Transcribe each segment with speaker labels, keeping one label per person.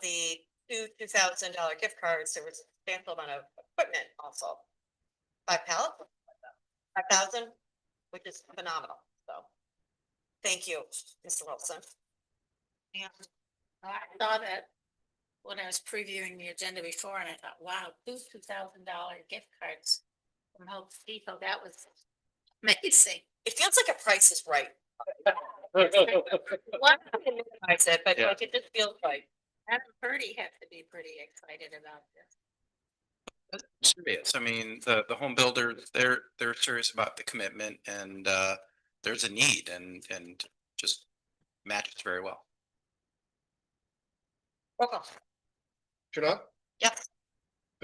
Speaker 1: the two, two thousand dollar gift cards, there was a substantial amount of equipment also. Five pallets, five thousand, which is phenomenal, so. Thank you, Mr. Wilson.
Speaker 2: Yeah. I saw that when I was previewing the agenda before and I thought, wow, two two thousand dollar gift cards from Hope Depot, that was amazing.
Speaker 1: It feels like a price is right.
Speaker 2: One,
Speaker 1: I said, but
Speaker 3: Yeah.
Speaker 1: like it just feels right.
Speaker 2: Adam Purdy had to be pretty excited about this.
Speaker 3: serious. I mean, the, the home builders, they're, they're serious about the commitment and, uh, there's a need and, and just matches very well.
Speaker 1: Roll call.
Speaker 4: Kurnat?
Speaker 1: Yes.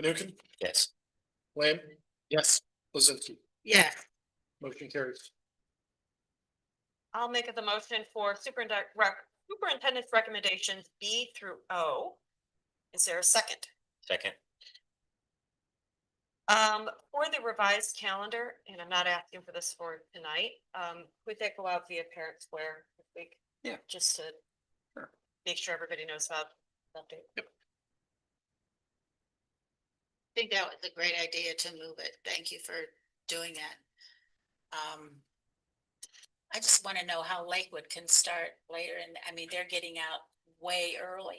Speaker 4: Fanukin?
Speaker 3: Yes.
Speaker 4: Lamb? Yes. Lizinsky,
Speaker 2: Yeah,
Speaker 4: motion carries.
Speaker 1: I'll make the motion for superintendent, superintendent's recommendations B through O. Is there a second?
Speaker 5: Second,
Speaker 1: Um, for the revised calendar, and I'm not asking for this for tonight, um, would that go out via Parent Square this week?
Speaker 3: Yeah.
Speaker 1: Just to
Speaker 3: Sure.
Speaker 1: make sure everybody knows about the update.
Speaker 2: I think that was a great idea to move it. Thank you for doing that. Um. I just want to know how Lakewood can start later and, I mean, they're getting out way early.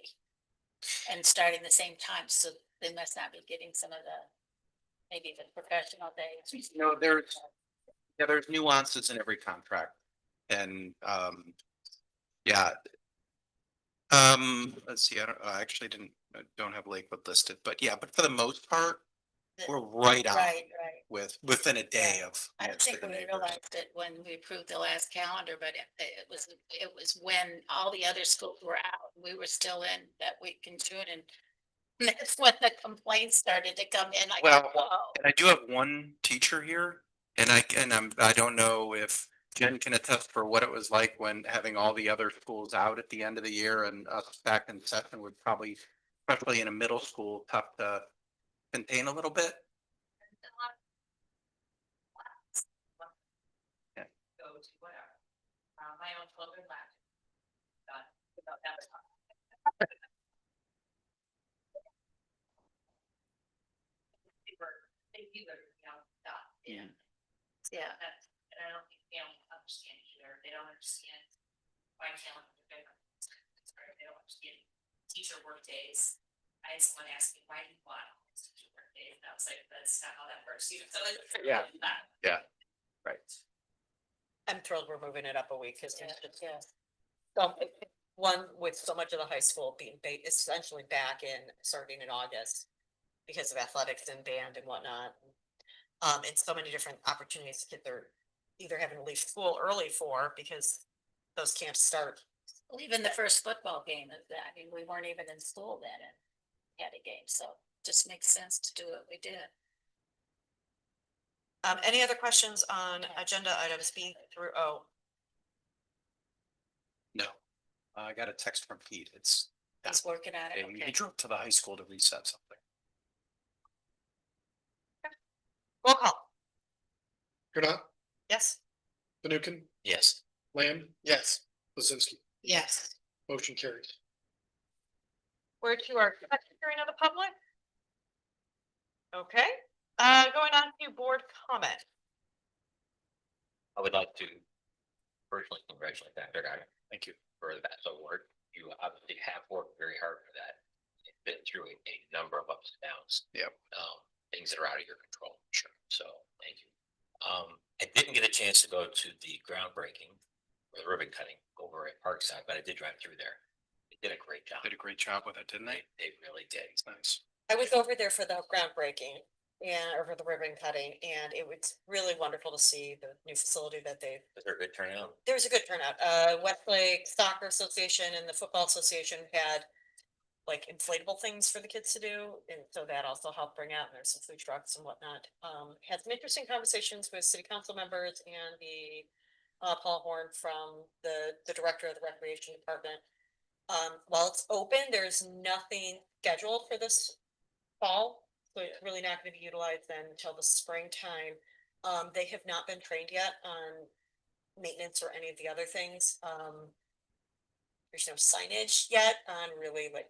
Speaker 2: And starting the same time, so they must not be getting some of the, maybe the professional days.
Speaker 3: No, there's, yeah, there's nuances in every contract and, um, yeah. Um, let's see, I don't, I actually didn't, I don't have Lakewood listed, but yeah, but for the most part, we're right on
Speaker 2: Right, right.
Speaker 3: with, within a day of.
Speaker 2: I don't
Speaker 3: most of
Speaker 2: think
Speaker 3: the
Speaker 2: we
Speaker 3: neighbors.
Speaker 2: realized it when we approved the last calendar, but it, it was, it was when all the other schools were out, we were still in that week in June and. That's when the complaints started to come in, like,
Speaker 3: Well,
Speaker 2: whoa,
Speaker 3: And I do have one teacher here and I can, I'm, I don't know if Jen can attest for what it was like when having all the other schools out at the end of the year and us back in session would probably, especially in a middle school, tough to contain a little bit. Yeah.
Speaker 2: go to whatever. Uh, my own children laughed. Got- about that. They were- they knew they were, you know, done.
Speaker 3: Yeah.
Speaker 2: Yeah. That's- And I don't think they don't understand either. They don't understand why calendar is different. It's very- They don't understand teacher work days. I had someone ask me, why do you want all these teacher work days? And I was like, that's not how that works. You know, so it's-
Speaker 3: Yeah. Right.
Speaker 1: I'm thrilled we're moving it up a week because it's just
Speaker 2: Yeah.
Speaker 1: so- one with so much of the high school being ba- essentially back in starting in August because of athletics and band and whatnot. Um, and so many different opportunities that they're either having to leave school early for because those camps start
Speaker 2: Well, Even the first football game of that, I mean, we weren't even in school then and had a game, so just makes sense to do what we did.
Speaker 1: Um, any other questions on agenda items B through O?
Speaker 3: No, I got a text from Pete. It's,
Speaker 2: He's working on it,
Speaker 3: he
Speaker 2: Oh, okay.
Speaker 3: drove to the high school to reset something.
Speaker 1: Roll call,
Speaker 4: Kurnat?
Speaker 1: yes?
Speaker 4: Fanukin?
Speaker 5: yes,
Speaker 4: Lamb? Yes. Lizinsky,
Speaker 2: Yes.
Speaker 4: motion carries.
Speaker 1: We're to our second hearing of the public. Okay, uh, going on to board comment.
Speaker 5: I would like to personally congratulate Dr. Guy
Speaker 3: Thank you.
Speaker 5: for that award. You obviously have worked very hard for that. You've Been through a, a number of ups and downs.
Speaker 3: Yep.
Speaker 5: Um, things that are out of your control. Sure. So, thank you. Um, I didn't get a chance to go to the groundbreaking or the ribbon cutting over at Parkside, but I did drive through there. They did a great job.
Speaker 3: Did a great job with it, didn't they?
Speaker 5: They, they really did.
Speaker 3: It's nice.
Speaker 1: I was over there for the groundbreaking and over the ribbon cutting, and it was really wonderful to see the new facility that they
Speaker 5: Was there a good turnout?
Speaker 1: there was a good turnout. Uh, Westlake Soccer Association and the Football Association had like inflatable things for the kids to do, and so that also helped bring out, and there's some food trucks and whatnot. Um, had some interesting conversations with city council members and the uh, Paul Horn from the, the director of the Recreation Department. Um, while it's open, there's nothing scheduled for this fall, so it's really not gonna be utilized then until the springtime. Um, they have not been trained yet on maintenance or any of the other things. Um, there's no signage yet on really like